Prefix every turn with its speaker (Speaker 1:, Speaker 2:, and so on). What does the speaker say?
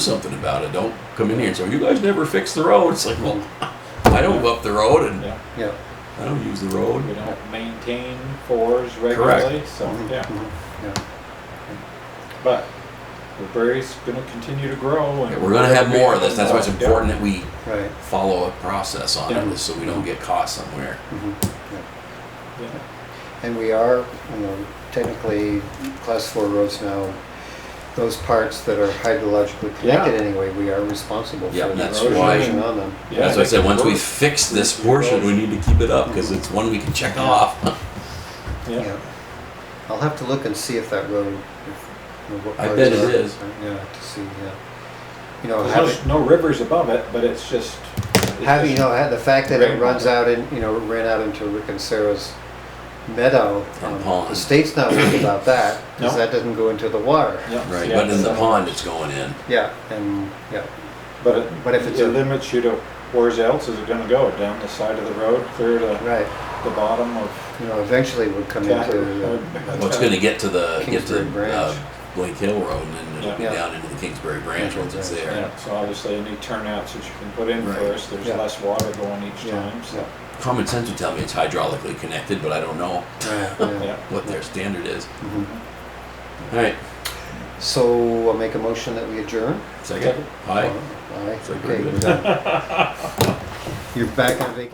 Speaker 1: something about it. Don't come in here and say, you guys never fix the road. It's like, well, I don't go up the road and
Speaker 2: Yeah,
Speaker 3: Yeah.
Speaker 1: I don't use the
Speaker 2: we
Speaker 1: road.
Speaker 2: don't maintain fours regularly, so,
Speaker 3: Mhm,
Speaker 2: yeah.
Speaker 3: mhm, yeah.
Speaker 2: But the berry's gonna continue to grow and.
Speaker 1: We're gonna have more of this. That's why it's
Speaker 2: Yeah.
Speaker 1: important that we
Speaker 3: Right.
Speaker 1: follow a process on
Speaker 2: Yeah.
Speaker 1: this so we don't get caught somewhere.
Speaker 3: mhm.
Speaker 2: Yeah.
Speaker 3: And we are, you know, technically, class four roads now, those parts that are hydrologically connected
Speaker 2: Yeah.
Speaker 3: anyway, we are responsible for
Speaker 1: Yeah,
Speaker 3: the
Speaker 1: that's
Speaker 2: why-
Speaker 3: erosion on them.
Speaker 2: Yeah,
Speaker 1: That's why I said, once we
Speaker 2: roads-
Speaker 1: fix this portion, we need to keep it up because it's one we can check off.
Speaker 2: Yeah,
Speaker 3: Yeah. I'll have to look and see if that road, if, you know, what
Speaker 1: I
Speaker 3: parts
Speaker 1: bet it
Speaker 3: are-
Speaker 1: is.
Speaker 3: Yeah, to see, yeah. You know, Oh, having,
Speaker 2: there's no rivers above it, but it's just. it's
Speaker 3: having, you
Speaker 2: just-
Speaker 3: know, had the fact that it
Speaker 2: Right.
Speaker 3: runs out in, you know, ran out into Rick and Sarah's meadow.
Speaker 1: And
Speaker 3: um, The
Speaker 1: pond.
Speaker 3: state's not worried about that, because
Speaker 2: No.
Speaker 3: that doesn't go into the water.
Speaker 2: yeah,
Speaker 1: Right,
Speaker 2: yeah,
Speaker 1: but in the
Speaker 2: so-
Speaker 1: pond it's going in.
Speaker 3: Yeah, and, yeah,
Speaker 2: But it,
Speaker 3: but if it's
Speaker 2: it
Speaker 3: a-
Speaker 2: limits you to where's else is it gonna go? Down the side of the road, clear to
Speaker 3: right.
Speaker 2: the bottom of.
Speaker 3: You know, eventually it would come into, uh,
Speaker 1: Well, it's gonna get to the, get to
Speaker 3: Kingsbury
Speaker 1: uh,
Speaker 3: Branch.
Speaker 1: Blake Hill Road and then it'll be
Speaker 3: Yeah.
Speaker 1: down into the Kingsbury Branch once it's there.
Speaker 2: Yeah, so obviously any turnouts that you can put in
Speaker 1: Right.
Speaker 2: first, there's
Speaker 3: Yeah.
Speaker 2: less water going each
Speaker 3: yeah,
Speaker 2: time, so,
Speaker 3: yeah.
Speaker 1: Common sense would tell me it's hydraulically connected, but I don't know
Speaker 3: Right, yeah.
Speaker 2: yeah.
Speaker 1: what their standard is.
Speaker 3: Mhm.
Speaker 1: All right,
Speaker 3: So I'll make a motion that we adjourn.
Speaker 1: second. Aye.
Speaker 3: Aye.
Speaker 1: So
Speaker 3: Okay,
Speaker 1: good.
Speaker 3: we're done. You're back on vacation.